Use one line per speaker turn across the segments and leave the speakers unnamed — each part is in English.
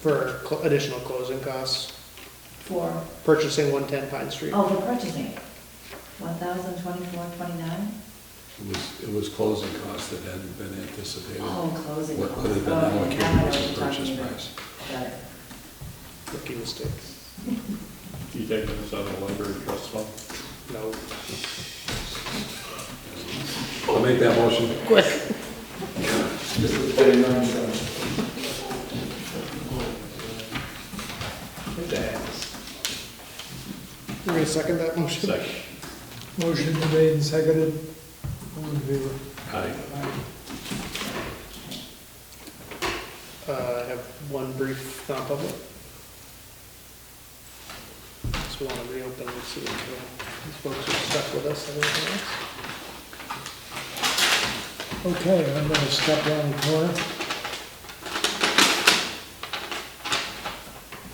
for cl- additional closing costs,
for,
purchasing 110 Pine Street.
oh, for purchasing, one thousand twenty-four, twenty-nine?
It was, it was closing costs that hadn't been anticipated.
Oh, closing
What
costs.
what had been
Okay, now I know
allocated
what
as
you're
the purchase
talking about.
price.
Got it.
Rookie mistakes.
You taking this out of the library trust fund?
No.
I'll make that motion.
You're gonna second that motion?
Second.
Motion been made and seconded. All in favor?
Aye.
Uh, I have one brief non-public. Just want to reopen and see if uh, these folks are stuck with us. and everything else.
Okay, I'm gonna step down the corner.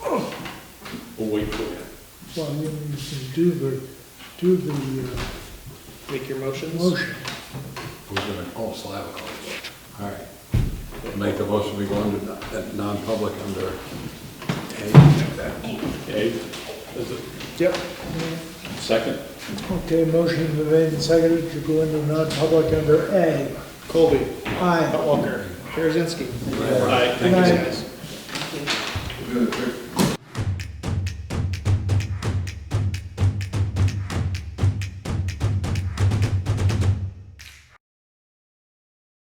We'll wait for you.
Well, you can do the, do the uh,
Make your motions.
motion.
Who's gonna, oh, Slavikov. All right. I'll Make the motion, we go into non- that non-public under A.
Okay, is it
Yep.
second?
Okay, motion been made and seconded to go into non-public under A.
Colby,
Aye.
Hot Walker, Karazinski.
Aye.
Good night.
guys.
Good.